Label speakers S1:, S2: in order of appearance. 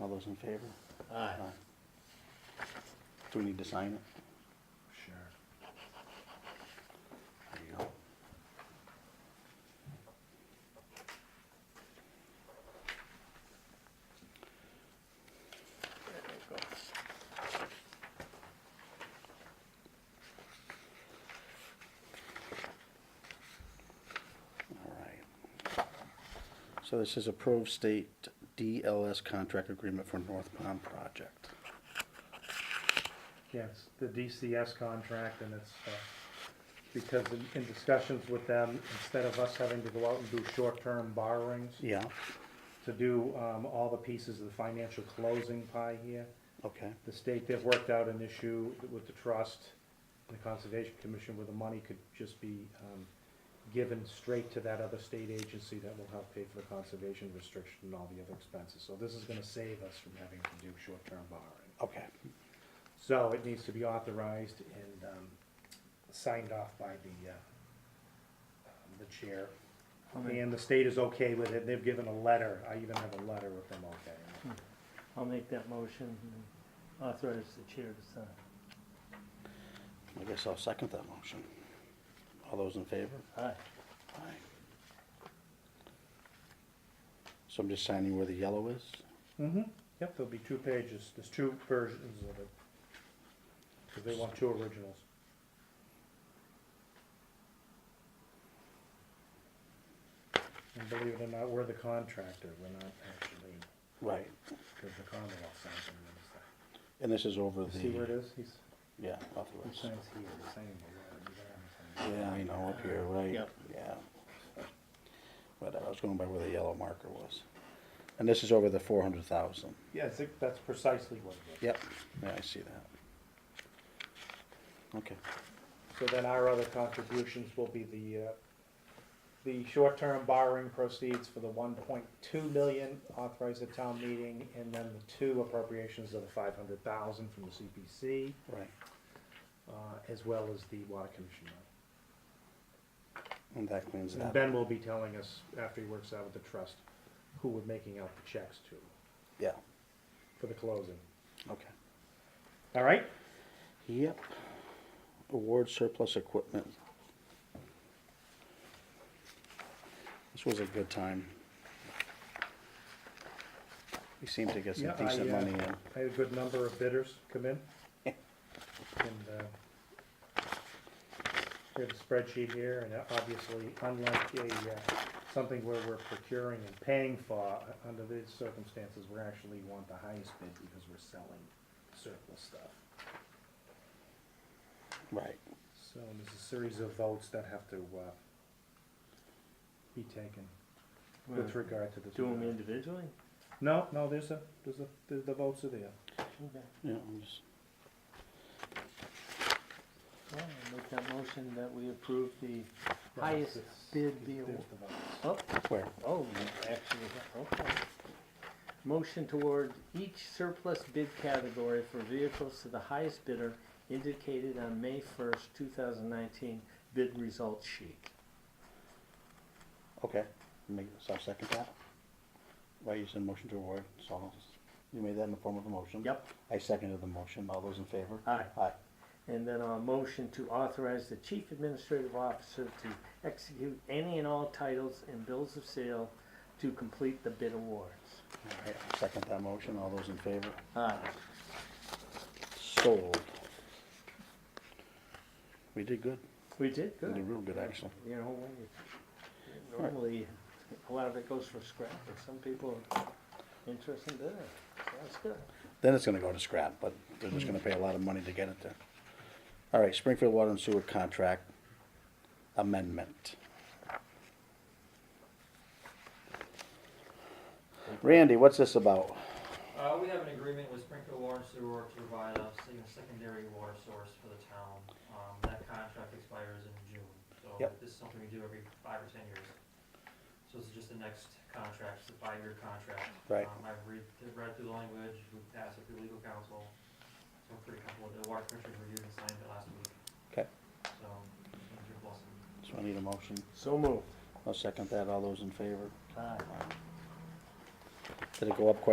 S1: All those in favor?
S2: Aye.
S1: Aye. Do we need to sign it?
S2: Sure.
S1: There you go.
S2: There we go.
S1: All right. So this is approved state DLS contract agreement for North Pond project.
S3: Yes, the DCS contract and it's, uh, because in- in discussions with them, instead of us having to go out and do short-term borrowings,
S1: Yeah,
S3: to do um, all the pieces of the financial closing pie here,
S1: okay,
S3: the state, they've worked out an issue with the trust and the Conservation Commission where the money could just be um, given straight to that other state agency that will help pay for the conservation restriction and all the other expenses. So this is gonna save us from having to do short-term borrowing.
S1: okay.
S3: So it needs to be authorized and um, signed off by the, uh, um, the chair.
S2: I'll make,
S3: And the state is okay with it, they've given a letter, I even have a letter with them okay.
S2: I'll make that motion and authorize the chair to sign.
S1: I guess I'll second that motion. All those in favor?
S2: Aye.
S1: Aye. So I'm just signing where the yellow is?
S3: Mm-hmm. Yep, there'll be two pages, there's two versions of it. Because they want two originals. And believe it or not, we're the contractor, we're not actually,
S1: Right.
S3: because the Commonwealth signs them.
S1: And this is over the.
S3: You See where it is? He's,
S1: Yeah,
S3: he
S1: authorized.
S3: signs here, he's signing the letter, you don't have to sign
S1: Yeah, I know, up here, right?
S2: Yep.
S1: Yeah. But I was going by where the yellow marker was. And this is over the four hundred thousand.
S3: it. Yeah, I think that's precisely what it is.
S1: Yep, yeah, I see that. Okay,
S3: So then our other contributions will be the, uh, the short-term borrowing proceeds for the one point two million authorized at town meeting, and then the two appropriations of the five hundred thousand from the CPC,
S1: right,
S3: uh, as well as the water commission. money.
S1: and that cleans it
S3: And
S1: up.
S3: Ben will be telling us, after he works out with the trust, who we're making out the checks to
S1: Yeah,
S3: for the closing.
S1: okay.
S3: All right?
S1: Yep. Award surplus equipment. This was a good time. We seem to get some
S3: Yeah, I,
S1: decent
S3: uh,
S1: money in.
S3: I had a good number of bidders come in. And, uh, we have a spreadsheet here, and obviously, unlike a, uh, something where we're procuring and paying for, uh, under these circumstances, we actually want the highest bid because we're selling surplus stuff.
S1: Right,
S3: So there's a series of votes that have to, uh, be taken
S2: Well,
S3: with regard to this.
S2: Do them
S3: matter.
S2: individually?
S3: No, no, there's a, there's a, the, the votes are there.
S2: Okay.
S1: yeah, I'm just,
S2: Well, I'll make that motion that we approve the
S3: No,
S2: highest
S3: it's-
S2: bid deal.
S3: There's the votes.
S2: Oh,
S1: where?
S2: oh, you actually, okay. Motion toward each surplus bid category for vehicles to the highest bidder indicated on May first, two thousand nineteen bid results sheet.
S1: Okay, make, so I'll second that. Right, you said motion to award, so I'll- you made that in the form of a motion?
S2: Yep.
S1: I seconded the motion, all those in favor?
S2: Aye.
S1: Aye,
S2: And then a motion to authorize the chief administrative officer to execute any and all titles and bills of sale to complete the bid awards.
S1: all right, I'll second that motion, all those in favor?
S2: Aye.
S1: Sold. We did good,
S2: We did
S1: we
S2: good.
S1: did real good, actually.
S2: You know, when you- normally, a lot of it goes for scrap, but some people are interested in that. So that's good.
S1: Then it's gonna go to scrap, but they're just gonna pay a lot of money to get it there. All right, Springfield Water and Sewer Contract Amendment. Randy, what's this about?
S4: Uh, we have an agreement with Springfield Water and Sewer to provide us a secondary water source for the town. Um, that contract expires in June, so
S1: Yep.
S4: this is something we do every five or ten years. So this is just the next contract, it's a five-year contract.
S1: Right.
S4: Um, I've read, read through the language, we passed it through legal counsel, so I'm pretty comfortable. The water commissioner reviewed and signed it last week,
S1: Okay,
S4: so, it's your blessing.
S1: so I need a motion.
S2: So moved.
S1: I'll second that. All those in favor?
S2: Aye.
S1: Did it go up quite